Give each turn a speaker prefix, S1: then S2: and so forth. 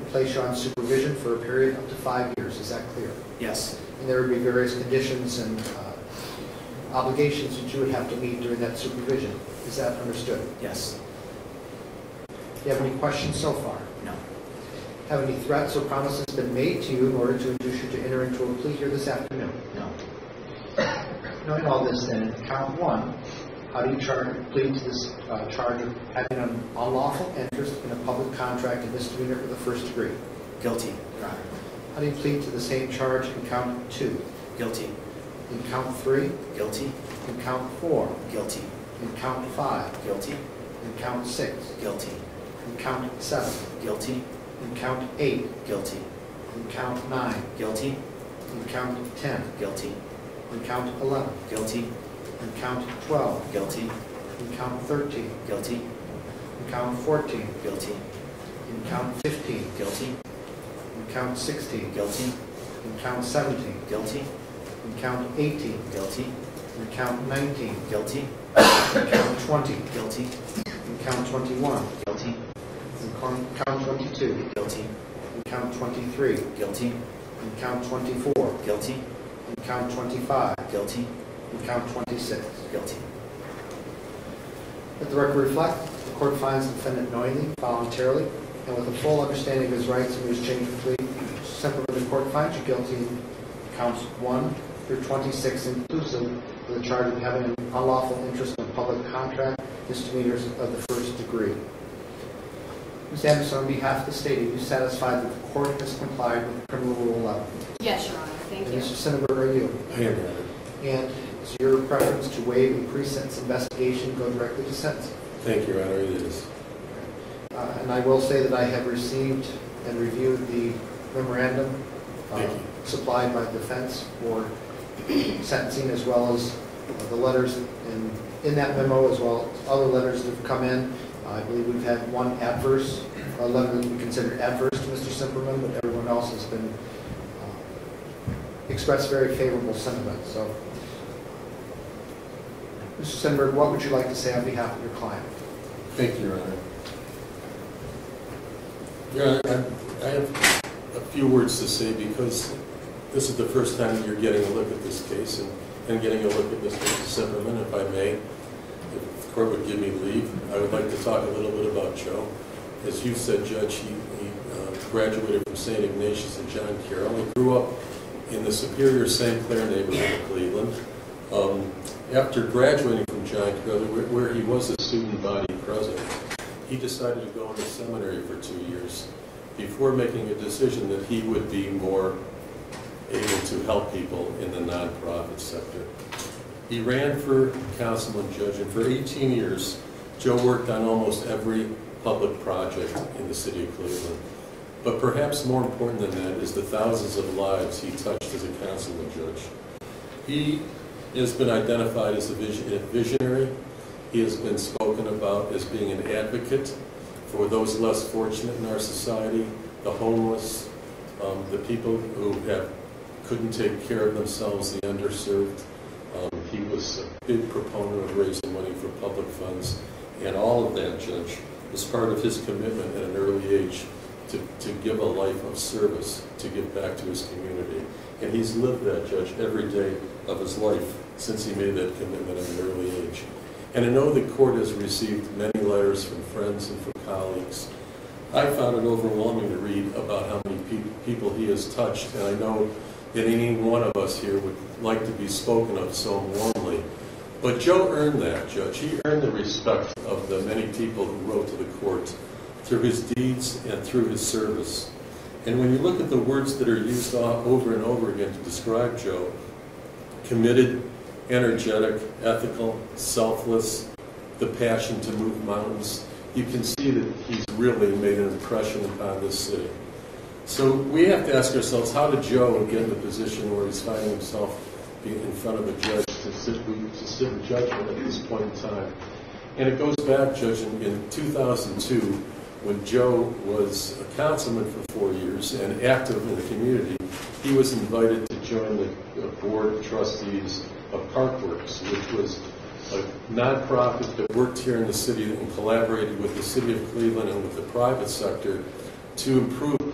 S1: place you on supervision for a period up to five years. Is that clear?
S2: Yes,
S1: And there would be various conditions and uh, obligations that you would have to meet during that supervision. Is that understood?
S2: yes,
S1: Do you have any questions so far?
S2: no,
S1: Have any threats or promises been made to you in order to induce you to enter into a plea here this afternoon?
S2: no.
S1: Knowing all this then, count one, how do you charge, plead to this uh, charge of having an unlawful interest in a public contract and misdemeanor for the first degree?
S2: Guilty, Your Honor.
S1: How do you plead to the same charge in count two,
S2: Guilty,
S1: in count three,
S2: guilty,
S1: in count four,
S2: guilty,
S1: in count five,
S2: guilty,
S1: in count six,
S2: guilty,
S1: in count seven,
S2: guilty,
S1: in count eight,
S2: guilty,
S1: in count nine,
S2: guilty,
S1: in count 10,
S2: guilty,
S1: in count 11,
S2: guilty,
S1: in count 12,
S2: guilty,
S1: in count 13,
S2: guilty,
S1: in count 14,
S2: guilty,
S1: in count 15,
S2: guilty,
S1: in count 16,
S2: guilty,
S1: in count 17,
S2: guilty,
S1: in count 18,
S2: guilty,
S1: in count 19,
S2: guilty,
S1: in count 20,
S2: guilty,
S1: in count 21,
S2: guilty,
S1: in con- count 22,
S2: guilty,
S1: in count 23, in
S2: guilty,
S1: count 24,
S2: guilty,
S1: in count 25,
S2: guilty,
S1: in count 26.
S2: guilty.
S1: Let the record reflect, the court finds the defendant knowingly, voluntarily, and with a full understanding of his rights and his change of plea, separately, the court finds you guilty in counts 1 through 26 inclusive of the charge of having an unlawful interest in a public contract, misdemeanors of the first degree. Ms. Anderson, on behalf of the state, are you satisfied that the court has complied with criminal rule 11?
S3: Yes, Your Honor, thank
S1: And
S3: you.
S1: Mr. Senator, are you?
S4: I am, Your Honor.
S1: And is your preference to waive the pre-sentence investigation, go directly to sentencing?
S4: Thank you, Your Honor, it is.
S1: Uh, And I will say that I have received and reviewed the memorandum uh,
S4: Thank you.
S1: supplied by defense for sentencing, as well as uh, the letters in, in that memo, as well as other letters that have come in. I believe we've had one adverse, a letter that we consider adverse to Mr. Simperman, but everyone else has been, uh, expressed very favorable sentiment, so. Mr. Sinberg, what would you like to say on behalf of your client?
S4: Thank you, Your Honor. Your Honor, I- I have a few words to say because this is the first time you're getting a look at this case and- and getting a look at Mr. Zimmerman, if I may. If the court would give me leave, I would like to talk a little bit about Joe. As you said, Judge, he he, uh, graduated from St. Ignatius and John Carroll. He grew up in the Superior St. Clair neighborhood of Cleveland. Um, After graduating from John Carroll, where- where he was a student body president, he decided to go into seminary for two years before making a decision that he would be more able to help people in the nonprofit sector. He ran for council and judge, and for 18 years, Joe worked on almost every public project in the city of Cleveland. But perhaps more important than that is the thousands of lives he touched as a council and judge. He has been identified as a vision- a visionary. He has been spoken about as being an advocate for those less fortunate in our society, the homeless, um, the people who have, couldn't take care of themselves, the underserved. Um, He was a big proponent of raising money for public funds, and all of that, Judge, was part of his commitment at an early age to, to give a life of service, to give back to his community. And he's lived that, Judge, every day of his life since he made that commitment at an early age. And I know the court has received many letters from friends and from colleagues. I found it overwhelming to read about how many peop- people he has touched, and I know that any one of us here would like to be spoken of so warmly. But Joe earned that, Judge. He earned the respect of the many people who wrote to the court through his deeds and through his service. And when you look at the words that are used o- over and over again to describe Joe, committed, energetic, ethical, selfless, the passion to move mountains, you can see that he's really made an impression upon this city. So we have to ask ourselves, how did Joe get in the position where he's finding himself be- in front of a judge to sit, to sit in judgment at this point in time? And it goes back, Judge, in- in 2002, when Joe was a councilman for four years and active in the community, he was invited to join the uh, board of trustees of Parkworks, which was a nonprofit that worked here in the city and collaborated with the city of Cleveland and with the private sector to improve